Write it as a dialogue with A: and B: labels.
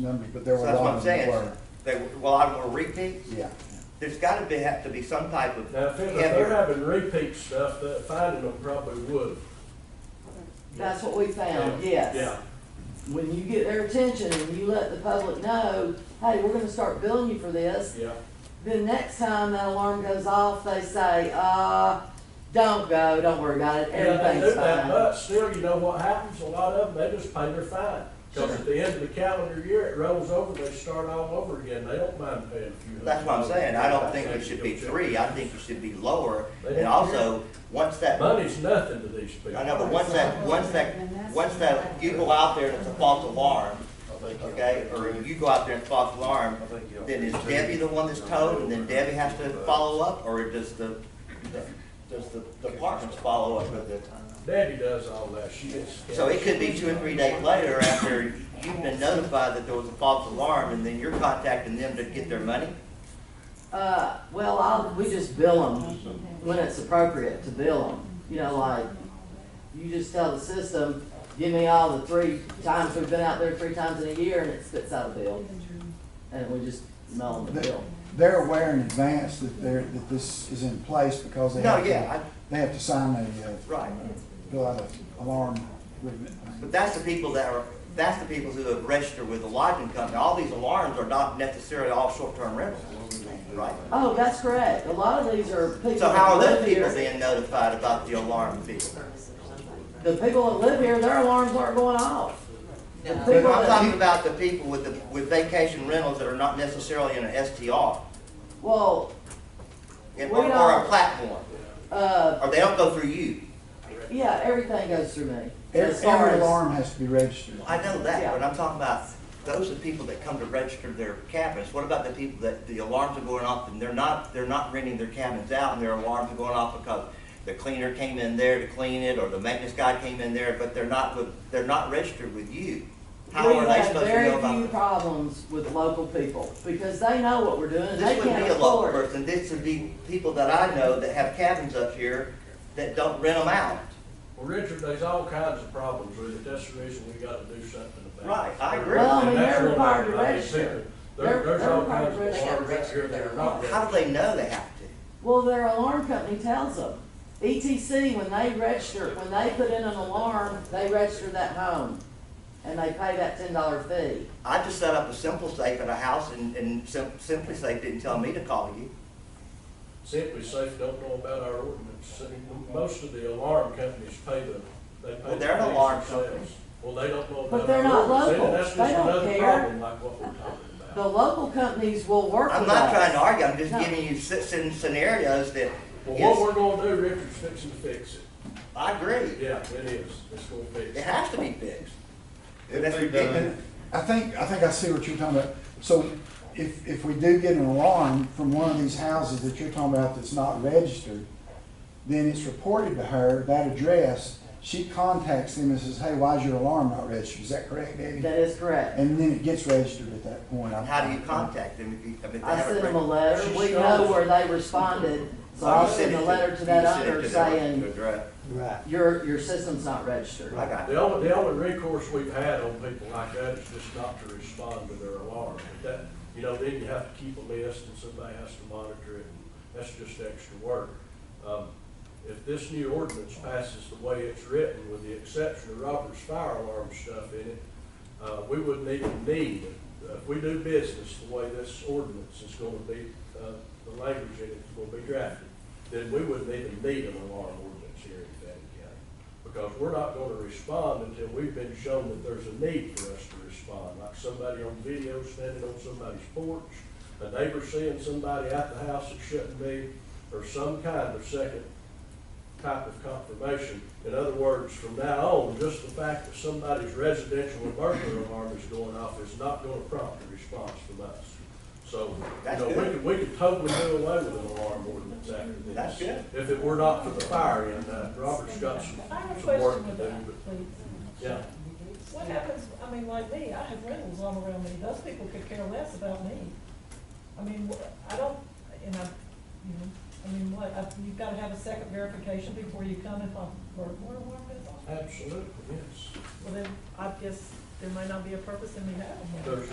A: numbers, but there
B: So
A: were a
B: that's what
A: lot
B: I'm
A: of them that
B: saying.
A: were.
B: They, well, I want to repeat.
A: Yeah.
B: There's got to be, have to be some type of.
C: Now, if it- if they're
B: heavier-
C: having repeat stuff, that finding them probably would.
D: That's what we found,
C: Yeah,
D: yes.
C: Yeah,
D: When you get their attention and you let the public know, hey, we're gonna start billing you for this,
C: yeah.
D: then next time that alarm goes off, they say, uh, don't go, don't worry about it,
C: And they do
D: everything's
C: that,
D: fine.
C: But still, you know what happens, a lot of them, they just pay their fine. Because at the end of the calendar year, it rolls over, they start all over again, they don't mind paying a few hundred.
B: That's what I'm saying. I don't think it
C: it
B: should be three. I think it should be lower. And
C: Yeah.
B: also, once that, I
C: Money's nothing to these people.
B: know, but once that, once that, once that, you go out there and it's a false alarm, okay? Or you go out there and it's a false alarm, then is Debbie the one that's told and then Debbie has to follow up? Or does the, the- does the departments follow up at that time?
C: Debbie does all that, she is.
B: So it could be two or three days later after you've been notified that there was a false alarm and then you're contacting them to get their money?
D: Uh, well, I'll, we just bill them when it's appropriate to bill them, you know, like, you just tell the system, give me all the three times we've been out there three times in a year, and it spits out a bill, and we just mail them the bill.
A: They're aware in advance that they're, that this is in place because they
B: No,
A: have to,
B: yeah,
A: they have to sign a, uh,
B: I, right.
A: fill out a alarm agreement.
B: But that's the people that are, that's the people who have registered with the lodging company. All these alarms are not necessarily all short-term rentals, right?
D: Oh, that's correct, a lot of these are people
B: So how are
D: that
B: those
D: live
B: people
D: here,
B: being notified about the alarm fee?
D: the people that live here, their alarms aren't going off. The
B: But I'm
D: people
B: talking
D: that,
B: about the people with the, with vacation rentals that are not necessarily in an STR
D: well,
B: and-
D: We
B: or or a
D: don't-
B: platform,
D: uh,
B: or they don't go through you.
D: yeah, everything goes through me, as
A: Every,
D: far
A: every
D: as,
A: alarm has to be registered.
B: I know that,
D: Yeah.
B: but I'm talking about, those are people that come to register their cabins. What about the people that the alarms are going off and they're not, they're not renting their cabins out and their alarms are going off because the cleaner came in there to clean it or the maintenance guy came in there, but they're not, with they're not registered with you? How
D: we
B: are they
D: have
B: supposed to know
D: very few
B: about that?
D: problems with local people, because they know what we're doing, and they
B: This wouldn't
D: can't
B: be a local
D: afford.
B: person, this would be people that I know that have cabins up here that don't rent them out.
C: Well, Richard, there's all kinds of problems with it, that's the reason we gotta do something about it.
B: Right, I agree.
D: Well, I mean,
C: And that's
D: they're
C: one thing,
D: required to
C: I mean,
D: register.
C: people-
D: They're-
C: There, there's
D: they're
C: all
D: required
C: kinds
D: to
C: of
D: register.
C: alarms out here that are not
B: How do
C: registered.
B: they know they have to?
D: Well, their alarm company tells them. ETC, when they register, when they put in an alarm, they register that home, and they pay that ten dollar fee.
B: I just set up a simple safe at a house and, and Sim- Simply Safe didn't tell me to call you.
C: Simply Safe don't know about our ordinance. Most of the alarm companies pay the, they pay.
B: Well,
C: the
B: they're an
C: fees
B: alarm
C: themselves.
B: company.
C: Well, they don't know about.
D: But they're
C: our
D: not
C: ordinance.
D: local.
C: That's
D: They
C: just
D: don't
C: another
D: care.
C: problem like what we're talking
D: The
C: about.
D: local companies will work
B: I'm
D: with
B: not trying to
D: us.
B: argue, I'm just
D: No.
B: giving you s- s- scenarios that,
C: Well, what
B: yes,
C: we're gonna do, Richard's fixing to fix it.
B: I agree,
C: Yeah, it is. It's gonna fix
B: it
C: it.
B: has to be fixed.
E: If
B: That's
E: they
B: ridiculous.
E: done,
A: I think, I think I see what you're talking about. So if, if we do get an alarm from one of these houses that you're talking about that's not registered, then it's reported to her, that address, she contacts them and says, hey, why is your alarm not registered? Is that correct, Debbie?
D: That is correct.
A: And then it gets registered at that point. I-
B: How do you contact them if you, I mean, they
D: I sent
B: haven't.
D: them a
B: written-
D: letter. We know where they responded, so
B: Oh,
D: I
B: you
D: sent
B: it
D: a letter to
B: you
D: that
B: sent it
D: owner
B: to their- to
D: saying,
B: address.
D: your, your system's not registered.
B: I got it.
C: The only, the only recourse we've had on people like that is just not to respond to their alarm. But That, you know, then you have to keep a list and somebody has to monitor it, and that's just extra work. Um, If this new ordinance passes the way it's written, with the exception of Robert's fire alarm stuff in it, uh, we wouldn't even need, uh, if we do business the way this ordinance is gonna be, uh, the language in it's gonna be drafted, then we wouldn't even need an alarm ordinance here in Fannin County because we're not gonna respond until we've been shown that there's a need for us to respond, like somebody on video standing on somebody's porch, a neighbor seeing somebody at the house that shouldn't be, or some kind of second type of confirmation. In other words, from now on, just the fact that somebody's residential or burglar alarm is going off is not gonna prompt a response from us. So, you
B: That's
C: know, we
B: good.
C: could, we could totally do away with an alarm ordinance after this.
B: That's good.
C: If it were not for the fire and, uh, Robert's got some
F: I have a
C: some work
F: question
C: to
F: with
C: do,
F: that,
C: but,
F: please.
C: yeah.
F: What happens, I mean, like me, I have rentals all around me, those people could care less about me. I mean, wh- I don't, and I, you know, I mean, what, I- you've gotta have a second verification before you come if I'm burglar alarm goes off.
C: Absolutely, yes.
F: Well, then, I guess there might not be a purpose in me having one.
C: There's